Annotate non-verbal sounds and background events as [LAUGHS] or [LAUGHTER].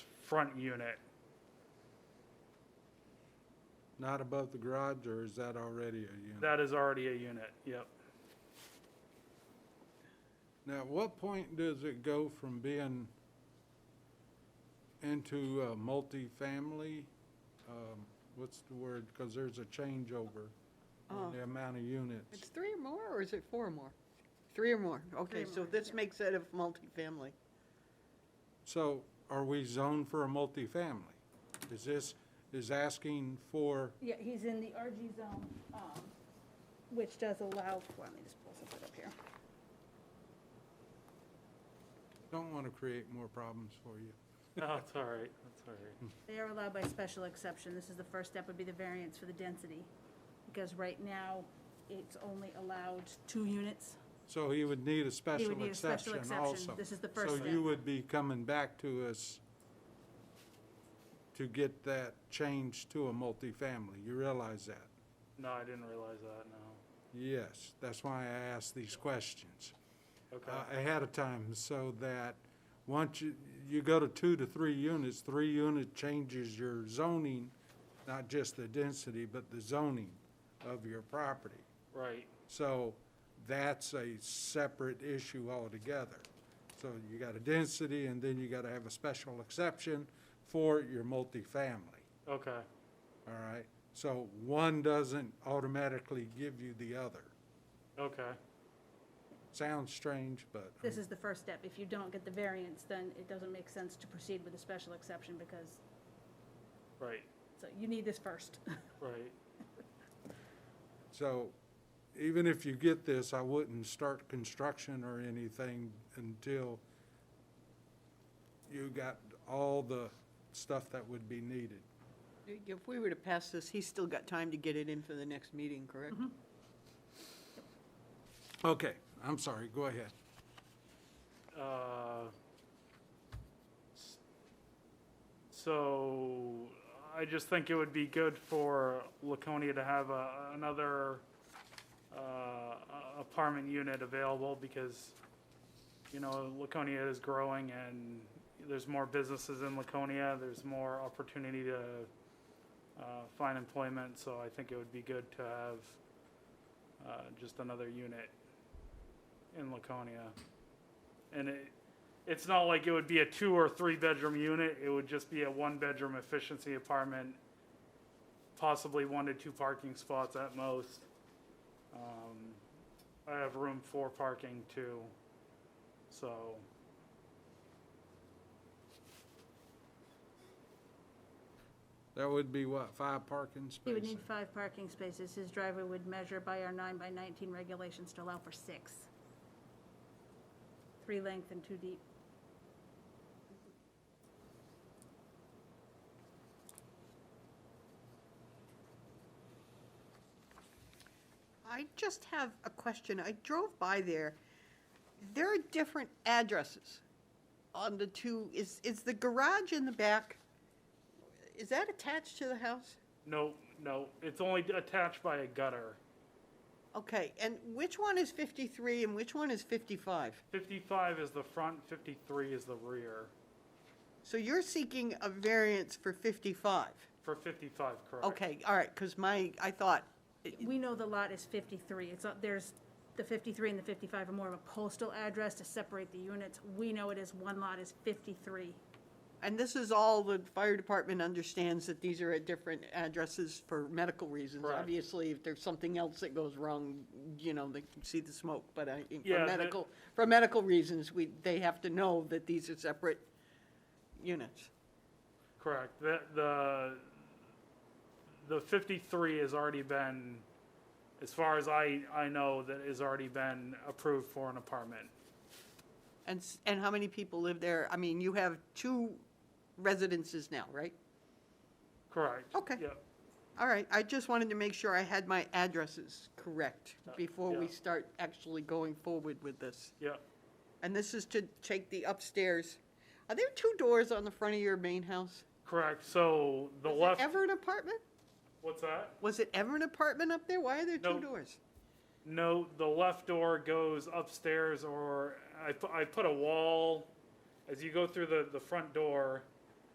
front unit. Not above the garage, or is that already a unit? That is already a unit, [LAUGHS] yep. Now, at what point does it go from being into a multifamily? Um, What's the word? Because there's a changeover Oh. in the amount of It's units. three or more, or is it four or more? Three or more, okay, so this makes it a multifamily. So are we zoned for a multifamily? Is this, is asking for, Yeah, he's in the RG zone, um, which does allow, well, let me just pull something up here. don't want to create more problems for you. No, it's Oh, all right, it's all right. They are allowed by special exception. This is the first step would be the variance for the density. Because right now, it's only allowed two units. So he would need a He special would need a exception special exception. also. This is the first So you step. would be coming back to us to get that changed to a multifamily. You realize that? [LAUGHS] No, I didn't realize that, no. Yes, that's why I asked these questions Okay, uh, ahead of time, so that once you, you go to two to three units, three unit changes your zoning, not just the density, but the zoning of your property. right, So that's a separate issue altogether. So you got a density, and then you got to have a special exception for your multifamily, okay, all right? So one doesn't automatically give you the other. okay, Sounds strange, but This is the first step. If you don't get the variance, then it doesn't make sense to proceed with a special exception because, right, so you need this first. [LAUGHS] right. so even if you get this, I wouldn't start construction or anything until you got all the stuff that would be needed. If we were to pass this, he's still got time to get it in for the next meeting, correct? Okay, I'm sorry, go ahead. Uh, s- So I just think it would be good for Laconia to have a, another uh, apartment unit available because, you know, Laconia is growing and there's more businesses in Laconia. There's more opportunity to uh, find employment. So I think it would be good to have uh, just another unit in Laconia. And it, it's not like it would be a two or three bedroom unit. It would just be a one bedroom efficiency apartment, possibly one to two parking spots at most. Um, I have room for parking too, so. That would be what, five parking spaces? He would need five parking spaces. His driveway would measure by our nine by 19 regulations to allow for six. Three length and two deep. I just have a question. I drove by there. There are different addresses on the two, is, is the garage in the back, is that attached to the house? No, no, it's only attached by a gutter. Okay, and which one is 53 and which one is 55? Fifty-five is the front, fifty-three is the rear. So you're seeking a variance for 55? For fifty-five, correct? Okay, all right, because my, I thought, We know the lot is 53. It's, not- there's, the 53 and the 55 are more of a postal address to separate the units. We know it is, one lot is 53. and this is all the fire department understands that these are at different addresses for medical reasons. Correct. Obviously, if there's something else that goes wrong, you know, they can see the smoke, but I, Yeah, for the- medical, for medical reasons, we, they have to know that these are separate units. Correct. The, the, the fifty-three has already been, as far as I, I know, that has already been approved for an apartment. And, s- and how many people live there? I mean, you have two residences now, right? Correct. Okay. Yep. All right, I just wanted to make sure I had my addresses correct before we Uh, yeah. start actually going forward with this. Yep. And this is to take the upstairs. Are there two doors on the front of your main house? Correct. So the Was it left. Ever an apartment? what's that? Was it ever an apartment up there? Why are there No. two doors? No, the left door goes upstairs, or I, pu- I put a wall, as you go through the, the front door,